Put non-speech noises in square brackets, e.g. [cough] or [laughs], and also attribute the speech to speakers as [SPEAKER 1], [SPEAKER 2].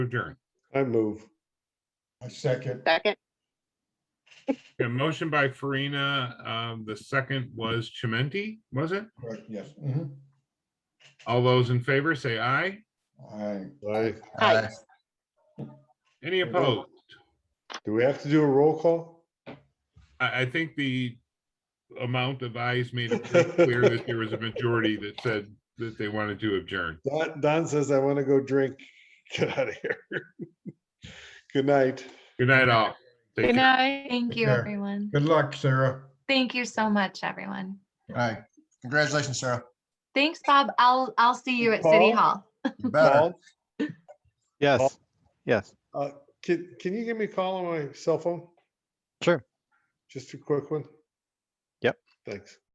[SPEAKER 1] adjourn.
[SPEAKER 2] I move.
[SPEAKER 3] I second.
[SPEAKER 4] Second,
[SPEAKER 1] A motion by Farina, um, the second was Chimenti, was it?
[SPEAKER 3] Correct, yes. mhm.
[SPEAKER 1] All those in favor say aye.
[SPEAKER 3] Aye.
[SPEAKER 2] Aye.
[SPEAKER 4] Aye.
[SPEAKER 1] Any opposed?
[SPEAKER 2] Do we have to do a roll call?
[SPEAKER 1] I, I think the amount of ayes made it pretty clear that there was a majority that said that they wanted to adjourn.
[SPEAKER 2] Don, Don says I want to go drink. [laughs] Get out of here. Good night.
[SPEAKER 1] Good night, all. Take
[SPEAKER 4] good
[SPEAKER 1] care.
[SPEAKER 4] night.
[SPEAKER 5] Thank
[SPEAKER 3] Take
[SPEAKER 5] you,
[SPEAKER 3] care.
[SPEAKER 5] everyone.
[SPEAKER 3] Good luck, Sarah.
[SPEAKER 5] Thank you so much, everyone.
[SPEAKER 6] Right. Congratulations, Sarah.
[SPEAKER 5] Thanks, Bob. I'll, I'll see you at City
[SPEAKER 2] Paul?
[SPEAKER 5] Hall.
[SPEAKER 6] You better.
[SPEAKER 2] Paul,
[SPEAKER 7] Yes, yes.
[SPEAKER 2] Can, can you give me a call on my cell phone?
[SPEAKER 7] Sure.
[SPEAKER 2] Just a quick one?
[SPEAKER 7] Yep.
[SPEAKER 2] Thanks.